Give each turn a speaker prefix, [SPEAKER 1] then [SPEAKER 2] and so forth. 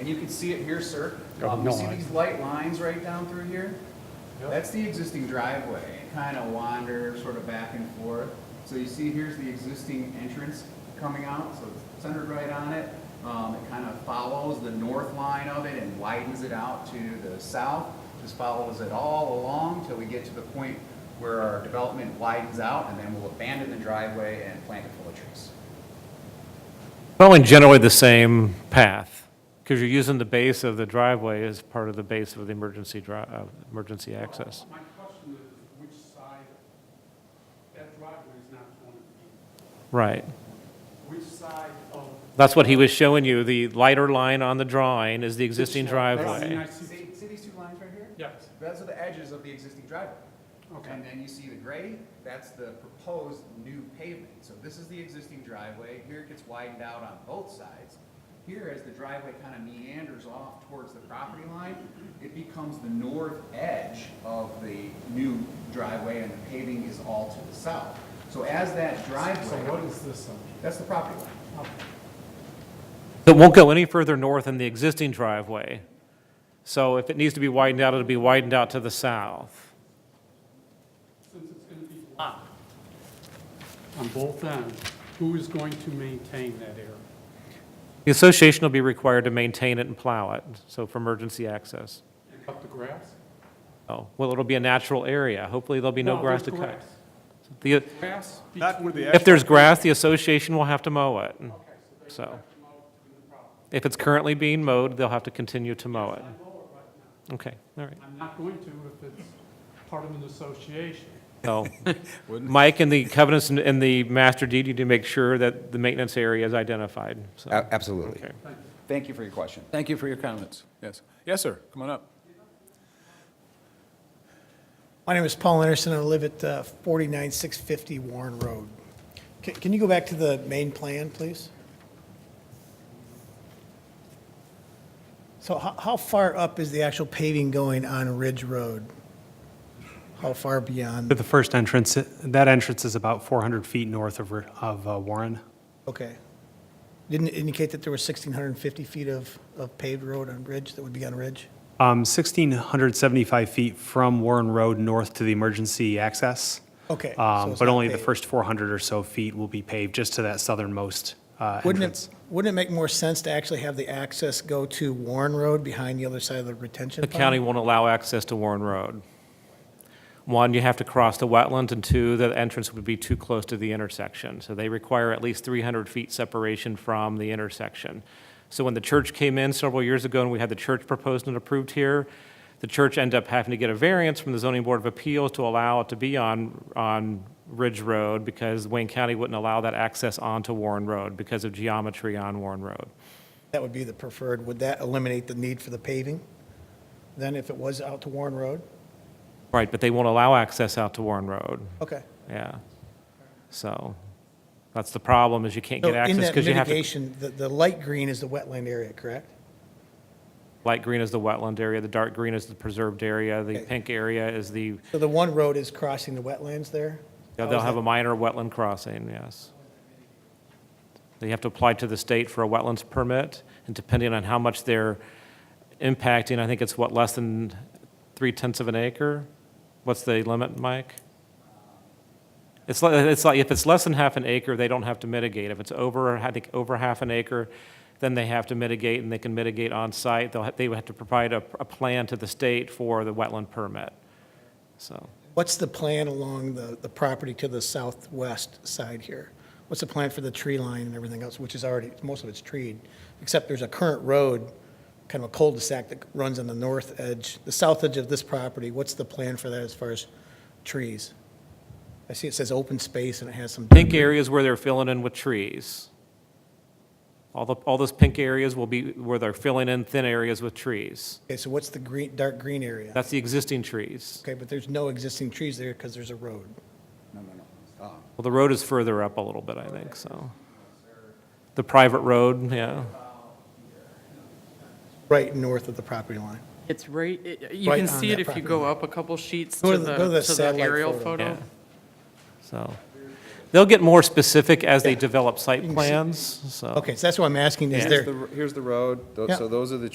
[SPEAKER 1] you can see it here, sir.
[SPEAKER 2] Oh,
[SPEAKER 1] Um, You
[SPEAKER 2] no,
[SPEAKER 1] see
[SPEAKER 2] I-
[SPEAKER 1] these light lines right down through here? That's the existing driveway. It kind of wander sort of back and forth. So you see here's the existing entrance coming out, so it's centered right on it. Um, It kind of follows the north line of it and widens it out to the south. Just follows it all along till we get to the point where our development widens out and then we'll abandon the driveway and plant it full of trees.
[SPEAKER 3] Following generally the same path, because you're using the base of the driveway as part of the base of the emergency dri, uh, emergency access.
[SPEAKER 2] My question is, which side, that driveway is not going to be,
[SPEAKER 3] Right.
[SPEAKER 2] which side of?
[SPEAKER 3] That's what he was showing you, the lighter line on the drawing is the existing
[SPEAKER 2] I mean, I
[SPEAKER 3] driveway.
[SPEAKER 2] see,
[SPEAKER 1] See, see these two lines right here?
[SPEAKER 2] yes,
[SPEAKER 1] Those are the edges of the existing driveway.
[SPEAKER 2] okay,
[SPEAKER 1] And then you see the gray, that's the proposed new pavement. So this is the existing driveway, here it gets widened out on both sides. Here, as the driveway kind of meanders off towards the property line, it becomes the north edge of the new driveway, and the paving is all to the south. So as that
[SPEAKER 2] so what
[SPEAKER 1] driveway,
[SPEAKER 2] is this on?
[SPEAKER 1] that's the property line.
[SPEAKER 3] That won't go any further north than the existing driveway. So if it needs to be widened out, it'll be widened out to the south.
[SPEAKER 2] Since it's going to be blocked on both ends, who is going to maintain that area?
[SPEAKER 3] The association will be required to maintain it and plow it, so for emergency access.
[SPEAKER 2] And Cut the grass?
[SPEAKER 3] Oh, well, it'll be a natural area. Hopefully, there'll be no grass
[SPEAKER 2] there's
[SPEAKER 3] to cut.
[SPEAKER 2] grass.
[SPEAKER 3] The-
[SPEAKER 2] Grass
[SPEAKER 4] Not where
[SPEAKER 2] between-
[SPEAKER 4] the
[SPEAKER 3] If there's grass, the association will have to mow it.
[SPEAKER 2] Okay, so they
[SPEAKER 3] So.
[SPEAKER 2] have to mow to the property.
[SPEAKER 3] If it's currently being mowed, they'll have to continue to mow it.
[SPEAKER 2] I mow it right now.
[SPEAKER 3] Okay, all right.
[SPEAKER 2] I'm not going to if it's part of an association.
[SPEAKER 3] So, Mike, in the covenants and- and the master deed, you do make sure that the maintenance area is identified, so.
[SPEAKER 4] Absolutely.
[SPEAKER 3] okay.
[SPEAKER 1] Thank you for your question.
[SPEAKER 4] Thank you for your comments. Yes. Yes, sir. Come on up.
[SPEAKER 5] My name is Paul Anderson. I live at uh, 49650 Warren Road. Can- Can you go back to the main plan, please? So how how far up is the actual paving going on Ridge Road? How far
[SPEAKER 6] But
[SPEAKER 5] beyond?
[SPEAKER 6] the first entrance, that entrance is about 400 feet north of, of uh, Warren.
[SPEAKER 5] Okay. Didn't it indicate that there were 1,650 feet of of paved road on Ridge that would be on Ridge?
[SPEAKER 6] Um, 1,675 feet from Warren Road north to the emergency access.
[SPEAKER 5] Okay, so
[SPEAKER 6] Um,
[SPEAKER 5] it's
[SPEAKER 6] But
[SPEAKER 5] not
[SPEAKER 6] only the
[SPEAKER 5] paved.
[SPEAKER 6] first 400 or so feet will be paved, just to that southernmost uh,
[SPEAKER 5] Wouldn't it,
[SPEAKER 6] entrance.
[SPEAKER 5] wouldn't it make more sense to actually have the access go to Warren Road behind the other side of the retention
[SPEAKER 3] The
[SPEAKER 5] pond?
[SPEAKER 3] county won't allow access to Warren Road. One, you have to cross the wetland, and two, the entrance would be too close to the intersection. So they require at least 300 feet separation from the intersection. So when the church came in several years ago and we had the church proposed and approved here, the church ended up having to get a variance from the zoning board of appeals to allow it to be on, on Ridge Road because Wayne County wouldn't allow that access onto Warren Road because of geometry on Warren Road.
[SPEAKER 5] That would be the preferred. Would that eliminate the need for the paving then if it was out to Warren Road?
[SPEAKER 3] Right, but they won't allow access out to Warren Road.
[SPEAKER 5] Okay.
[SPEAKER 3] Yeah. So that's the problem is you can't
[SPEAKER 5] So
[SPEAKER 3] get
[SPEAKER 5] in
[SPEAKER 3] access
[SPEAKER 5] that
[SPEAKER 3] because you have to,
[SPEAKER 5] mitigation, the, the light green is the wetland area, correct?
[SPEAKER 3] light green is the wetland area, the dark green is the preserved area, the
[SPEAKER 5] Okay.
[SPEAKER 3] pink area is the,
[SPEAKER 5] So the one road is crossing the wetlands there?
[SPEAKER 3] yeah,
[SPEAKER 5] How
[SPEAKER 3] they'll
[SPEAKER 5] Oh, is
[SPEAKER 3] have
[SPEAKER 5] that-
[SPEAKER 3] a minor wetland crossing, yes. They have to apply to the state for a wetlands permit and depending on how much they're impacting, I think it's what, less than three tenths of an acre? What's the limit, Mike? It's like, it's like, if it's less than half an acre, they don't have to mitigate. If it's over, I think, over half an acre, then they have to mitigate, and they can mitigate on-site. They'll, ha- they would have to provide a, a plan to the state for the wetland permit. So,
[SPEAKER 5] What's the plan along the, the property to the southwest side here? What's the plan for the tree line and everything else, which is already, most of it's treed, except there's a current road, kind of a cul-de-sac that runs on the north edge, the south edge of this property. What's the plan for that as far as trees? I see it says open space and it has some.
[SPEAKER 3] pink areas where they're filling in with trees. All the, all those pink areas will be where they're filling in thin areas with trees.
[SPEAKER 5] Okay, so what's the green, dark green area?
[SPEAKER 3] That's the existing trees.
[SPEAKER 5] Okay, but there's no existing trees there because there's a road.
[SPEAKER 1] No, no, no. Uh,
[SPEAKER 3] Well, the road is further up a little bit, I think, so. The private road, yeah.
[SPEAKER 5] Right north of the property line.
[SPEAKER 7] It's right, it- you
[SPEAKER 5] Right
[SPEAKER 7] can
[SPEAKER 5] on
[SPEAKER 7] see it
[SPEAKER 5] that
[SPEAKER 7] if you
[SPEAKER 5] property
[SPEAKER 7] go
[SPEAKER 5] line.
[SPEAKER 7] up a couple sheets
[SPEAKER 5] Go
[SPEAKER 7] to
[SPEAKER 5] to the- go to
[SPEAKER 7] the,
[SPEAKER 5] the
[SPEAKER 7] to the
[SPEAKER 5] satellite
[SPEAKER 7] aerial
[SPEAKER 5] photo.
[SPEAKER 7] photo.
[SPEAKER 3] Yeah. So, they'll get more specific as they
[SPEAKER 5] Yeah.
[SPEAKER 3] develop site
[SPEAKER 5] You can see-
[SPEAKER 3] plans, so.
[SPEAKER 5] Okay, so that's what I'm asking, is
[SPEAKER 3] Yeah.
[SPEAKER 5] there?
[SPEAKER 8] Here's the, here's the road, Tho-
[SPEAKER 5] Yeah.
[SPEAKER 8] so those are the